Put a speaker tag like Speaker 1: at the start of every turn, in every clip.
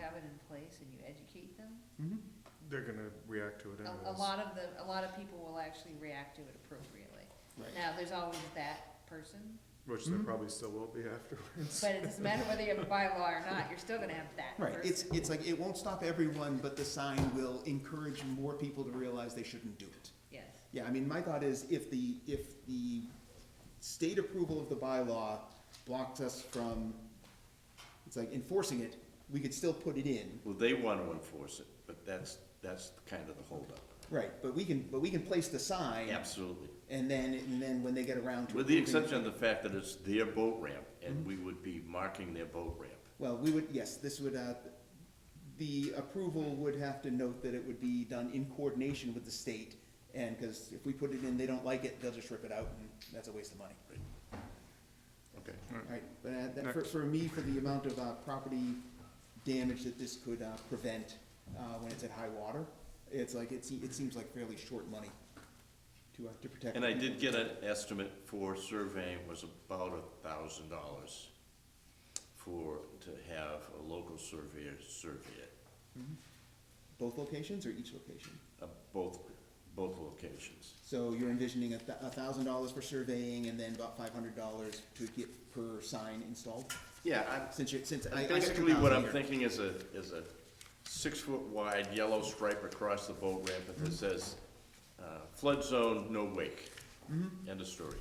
Speaker 1: have it in place and you educate them,
Speaker 2: Mhm. They're gonna react to it anyways.
Speaker 1: a, a lot of the, a lot of people will actually react to it appropriately.
Speaker 3: Right.
Speaker 1: Now, there's always that person,
Speaker 2: Which there
Speaker 3: Mhm.
Speaker 2: probably still will be afterwards.
Speaker 1: but it doesn't matter whether you have a bylaw or not, you're still gonna have that
Speaker 3: Right,
Speaker 1: person.
Speaker 3: it's, it's like, it won't stop everyone, but the sign will encourage more people to realize they shouldn't do it.
Speaker 1: Yes,
Speaker 3: Yeah, I mean, my thought is if the, if the state approval of the bylaw blocked us from, it's like enforcing it, we could still put it in.
Speaker 4: Well, they want to enforce it, but that's, that's kind of the holdup.
Speaker 3: Right, but we can, but we can place the sign.
Speaker 4: Absolutely.
Speaker 3: And then, and then when they get around to.
Speaker 4: With the
Speaker 3: approving it-
Speaker 4: exception of the fact that it's their boat ramp, and we would be marking their boat ramp.
Speaker 3: Well, we would, yes, this would, uh, the approval would have to note that it would be done in coordination with the state. And, because if we put it in, they don't like it, they'll just rip it out and that's a waste of money.
Speaker 4: Okay.
Speaker 3: Alright, but uh, that, for, for me, for the amount of, uh, property damage that this could, uh, prevent, uh, when it's at high water, it's like, it se- it seems like fairly short money to, uh, to protect.
Speaker 4: And I
Speaker 3: people.
Speaker 4: did get an estimate for surveying was about a thousand dollars for, to have a local surveyor survey it,
Speaker 3: Both locations or each location?
Speaker 4: uh, both, both locations.
Speaker 3: So you're envisioning a, thou- a thousand dollars for surveying and then about five hundred dollars to get per sign installed?
Speaker 4: Yeah, I'm,
Speaker 3: Since you, since I. I got
Speaker 4: Basically, what
Speaker 3: 2,000
Speaker 4: I'm
Speaker 3: here.
Speaker 4: thinking is a, is a six-foot wide yellow stripe across the boat ramp
Speaker 3: Mm-hmm.
Speaker 4: that says, uh, flood zone, no wake.
Speaker 3: Mm-hmm.
Speaker 4: End of story.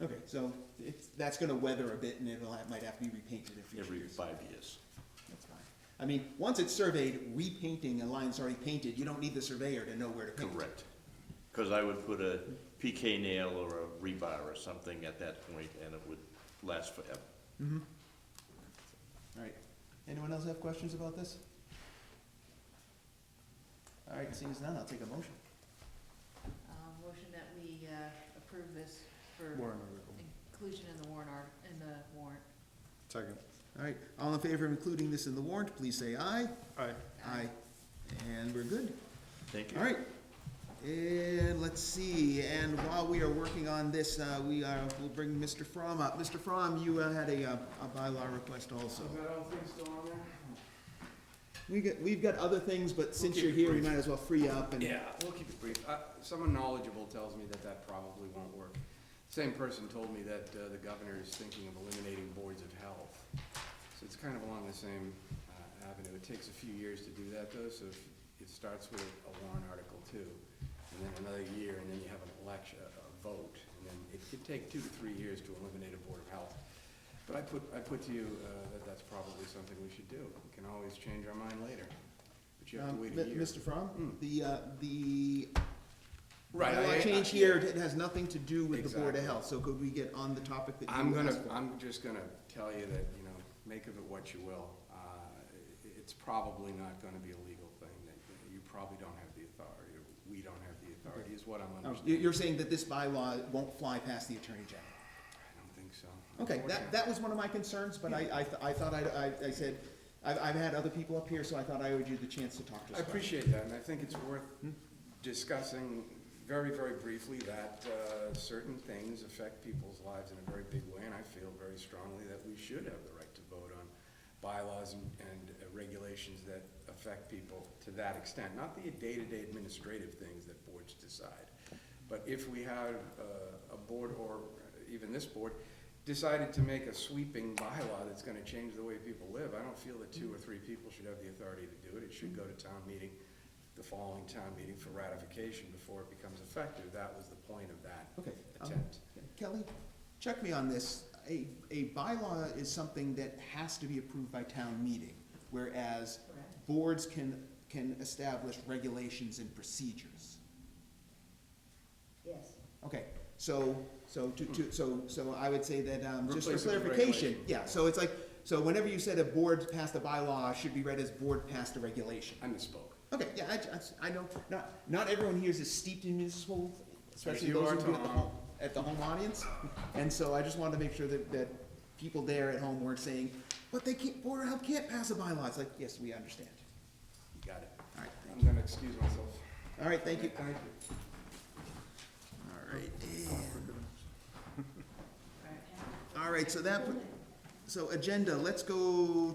Speaker 3: Okay, so it's, that's gonna weather a bit and it'll, have- might have to be repainted in future
Speaker 4: Every
Speaker 3: years.
Speaker 4: five years.
Speaker 3: That's fine. I mean, once it's surveyed, repainting a line that's already painted, you don't need the surveyor to know where to paint.
Speaker 4: Correct. Because I would put a PK nail or a rebar or something at that point, and it would last forever.
Speaker 3: All right. Anyone else have questions about this? All right, seeing as none, I'll take a motion.
Speaker 1: um, motion that we, uh, approve this for
Speaker 2: Warren article.
Speaker 1: inclusion in the warrant art, in the warrant.
Speaker 2: Second.
Speaker 3: All right, all in favor of including this in the warrant, please say aye.
Speaker 2: Aye.
Speaker 3: Aye. And we're good.
Speaker 4: Thank you.
Speaker 3: All right. And let's see, and while we are working on this, uh, we are, we'll bring Mr. Fromm up. Mr. Fromm, you uh, had a, uh, a bylaw request also. We got, we've got other things, but since
Speaker 5: keep
Speaker 3: you're
Speaker 5: it
Speaker 3: here, we
Speaker 5: brief.
Speaker 3: might as well free up and.
Speaker 5: Yeah, we'll keep it brief. Uh, Someone knowledgeable tells me that that probably won't work. Same person told me that uh, the governor is thinking of eliminating boards of health. So it's kind of along the same uh, avenue. It takes a few years to do that though, so if- it starts with a warrant article too, and then another year, and then you have an election, a vote, and then it could take two to three years to eliminate a board of health. But I put, I put to you uh, that that's probably something we should do. We can always change our mind later, but you have to
Speaker 3: Um,
Speaker 5: wait
Speaker 3: Mi-
Speaker 5: a year.
Speaker 3: Mr. Fromm,
Speaker 5: Mm.
Speaker 3: the, uh, the
Speaker 5: Right, I-
Speaker 3: bylaw
Speaker 5: I-
Speaker 3: change here, it has nothing to do with the Board
Speaker 5: Exactly.
Speaker 3: of Health, so could we get on the topic that you
Speaker 5: I'm gonna,
Speaker 3: asked for?
Speaker 5: I'm just gonna tell you that, you know, make of it what you will. Uh, i- It's probably not gonna be a legal thing, that that you probably don't have the authority, or we don't have the authority, is what I'm
Speaker 3: Oh,
Speaker 5: understanding.
Speaker 3: you- You're saying that this bylaw won't fly past the Attorney General?
Speaker 5: I don't think so.
Speaker 3: Okay, that,
Speaker 5: Unfortunately.
Speaker 3: that was one of my concerns, but I, I, th- I thought I, I, I said, I've, I've had other people up here, so I thought I owed you the chance to talk to us.
Speaker 5: I appreciate that, and I think it's worth discussing very, very briefly that uh, certain things affect people's lives in a very big way, and I feel very strongly that we should have the right to vote on bylaws and and uh, regulations that affect people to that extent, not the day-to-day administrative things that boards decide. But if we had uh, a board, or even this board, decided to make a sweeping bylaw that's gonna change the way people live, I don't feel that two or three people should have the authority to do it. It should go to town meeting, the following town meeting for ratification before it becomes effective. That was the point of that
Speaker 3: Okay, um,
Speaker 5: attempt.
Speaker 3: Kelly, check me on this. A, a bylaw is something that has to be approved by town meeting, whereas
Speaker 1: Correct.
Speaker 3: boards can, can establish regulations and procedures.
Speaker 1: Yes.
Speaker 3: Okay, so, so to, to, so, so I would say that, um, just for
Speaker 5: Replace it with
Speaker 3: clarification,
Speaker 5: regulation.
Speaker 3: yeah, so it's like, so whenever you said a board passed a bylaw, should be read as board passed a regulation.
Speaker 5: I misspoke.
Speaker 3: Okay, yeah, I, just- I know, not, not everyone here is as steeped in municipal, especially
Speaker 5: you
Speaker 3: those
Speaker 5: are,
Speaker 3: who've been at the
Speaker 5: Tom.
Speaker 3: home, at the home audience. And so I just wanted to make sure that, that people there at home weren't saying, but they can't, Board of Health can't pass a bylaw. It's like, yes, we understand.
Speaker 5: You got it.
Speaker 3: All right, thank
Speaker 5: I'm gonna excuse myself.
Speaker 3: you. All right, thank you.
Speaker 5: Thank you.
Speaker 3: All right,
Speaker 1: Right.
Speaker 3: all right, so that, put- so agenda, let's go